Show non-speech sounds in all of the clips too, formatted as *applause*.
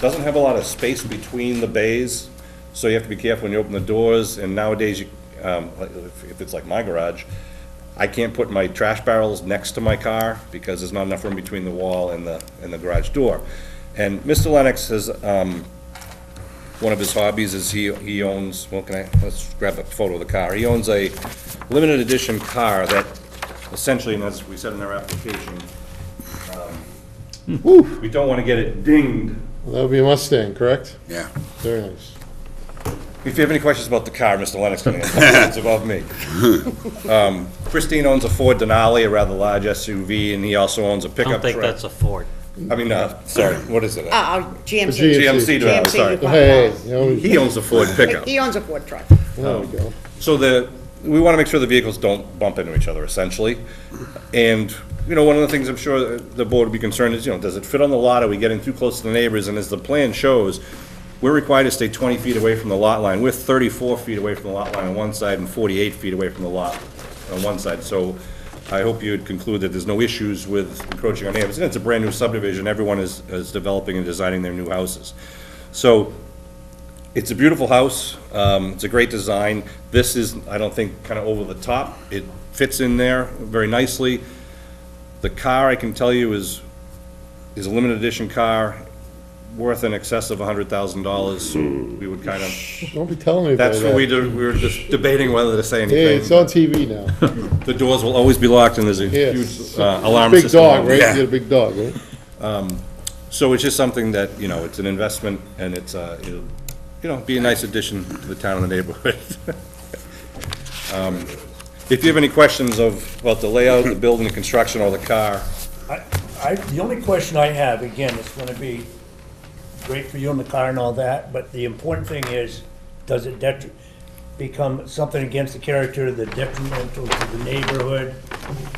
doesn't have a lot of space between the bays, so you have to be careful when you open the doors, and nowadays, you, um, like, if if it's like my garage, I can't put my trash barrels next to my car, because there's not enough room between the wall and the, and the garage door. And Mr. Lennox has, um, one of his hobbies is he, he owns, well, can I, let's grab a photo of the car. He owns a limited edition car that essentially, and as we said in our application, um, we don't want to get it dinged. That would be a Mustang, correct? Yeah. Very nice. If you have any questions about the car, Mr. Lennox can answer. It's above me. *laughs* Um, Christine owns a Ford Denali, a rather large SUV, and he also owns a I pickup don't think truck. that's a Ford. I mean, uh, sorry, what is it? Uh, uh, GMC. GMC. GMC driver, GMC, sorry. you bought Hey, that. you know, He owns a Ford pickup. He owns a Ford truck. there we go. So the, we want to make sure the vehicles don't bump into each other essentially. And, you know, one of the things I'm sure the board would be concerned is, you know, does it fit on the lot? Are we getting too close to the neighbors? And as the plan shows, we're required to stay 20 feet away from the lot line. We're 34 feet away from the lot line on one side and 48 feet away from the lot on one side. So I hope you'd conclude that there's no issues with encroaching on neighbors. And it's a brand-new subdivision. Everyone is, is developing and designing their new houses. So it's a beautiful house, um, it's a great design. This is, I don't think, kind of over the top. It fits in there very nicely. The car, I can tell you, is, is a limited edition car, worth in excess of hundred thousand dollars. We would kind of, Don't be telling me about that's what we that. do, we were just debating whether to say Hey, it's anything. on TV now. The doors will always be locked and there's a *laughs* Yes. huge uh, alarm Big system. dog, on right? You it. Yeah. got a big dog, right? So it's just something that, you know, it's an investment and it's, uh, it'll, you know, be a nice addition to the town and the neighborhood. *laughs* Um, If you have any questions of, about the layout, the building, the construction, or the car, I, I, the only question I have, again, it's gonna be great for you in the car and all that, but the important thing is, does it detri, become something against the character, the detrimental to the neighborhood?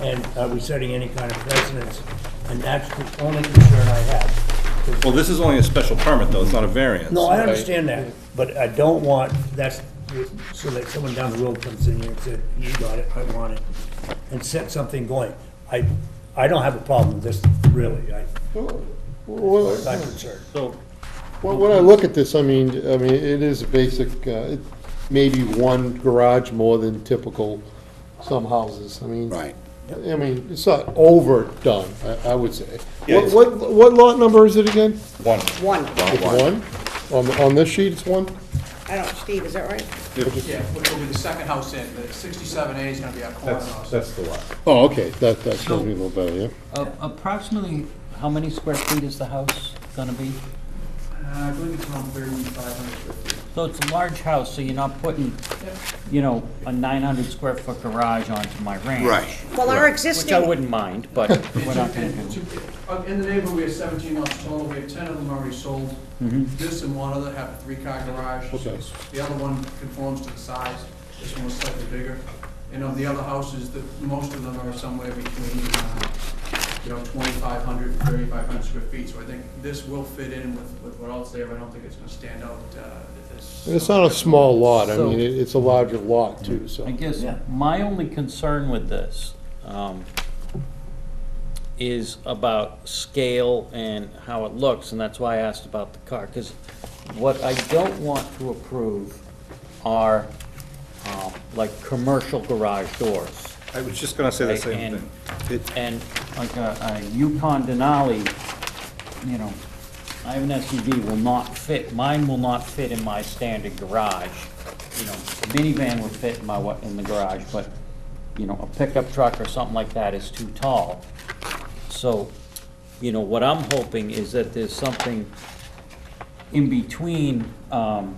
And are we setting any kind of precedence? And that's the only concern I have. 'Cause- well, this is only a special permit though, it's not a variance. No, I understand that, but I don't want, that's, so that someone down the road comes in here and said, you got it, I want it, and set something going. I, I don't have a problem with this, really, I, Well, I'm concerned. So, Well, when I look at this, I mean, I mean, it is a basic, uh, it- maybe one garage more than typical some houses, I mean. Right. I mean, it's not overdone, I, I would say. Yeah, What, it's- what, what lot number is it again? one, One. It's one? On, on this sheet, it's one? I don't, Steve, is that right? Yeah, which will be the second house in, the sixty-seven A is gonna be our corner that's, house. that's the lot. Oh, okay, that, that tells me a little better, yeah. A- Approximately, how many square feet is the house gonna be? Uh, I believe it's around thirty-five hundred square feet. So it's a large house, so you're not putting, you know, a 900 square foot garage onto my ranch. Right. Well, our Which I existing, wouldn't mind, but we're not gonna And do. two- uh, In the neighborhood, we have seventeen lots total, we have ten of them already sold. This and one other have a three-car garage. Okay. The other one conforms to the size, this one was slightly bigger. And of the other houses, the, most of them are somewhere between, uh, you know, 2,500 and 3,500 square feet. So I think this will fit in with, with what else there, but I don't think it's gonna stand out, uh, that this. And it's not a small lot, I So- mean, it, it's a larger lot too, so. I guess Yeah. my only concern with this um, is about scale and how it looks, and that's why I asked about the car. Because what I don't want to approve are um, like commercial garage doors. I was just gonna say the Right, same and- thing. It- And like a a Yukon Denali, you know, I have an SUV will not fit, mine will not fit in my standard garage. You know, minivan would fit in my, wa- in the garage, but, you know, a pickup truck or something like that is too tall. So, you know, what I'm hoping is that there's something in between, um,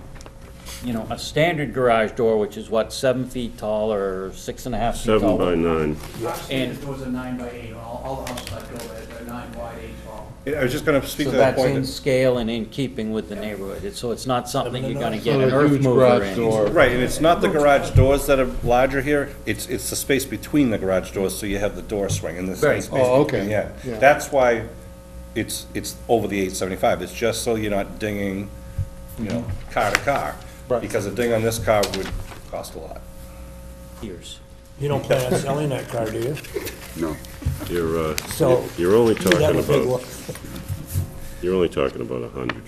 you know, a standard garage door, which is what, seven feet tall or six and a half feet Seven tall? by nine. Obviously, And- this door's a nine by eight, all, all the houses I built are are nine wide, eight tall. I was just gonna speak So to that that's point. in that- scale and in keeping with the neighborhood, It's- so it's not something you're gonna get Not an a earth huge mover garage in. door. Right, and it's not the garage doors that are larger here, it's, it's the space between the garage doors, so you have the door swing and this. Right. space Oh, between, okay. Yeah, Yeah. that's why it's, it's over the eight seventy-five, it's just so you're not dinging, you know, car to car. Right. Because a ding on this car would cost a lot. Years. You don't plan on selling that car, do you? No. You're, uh, So- you're only You have talking a big about, one. you're only talking about a hundred.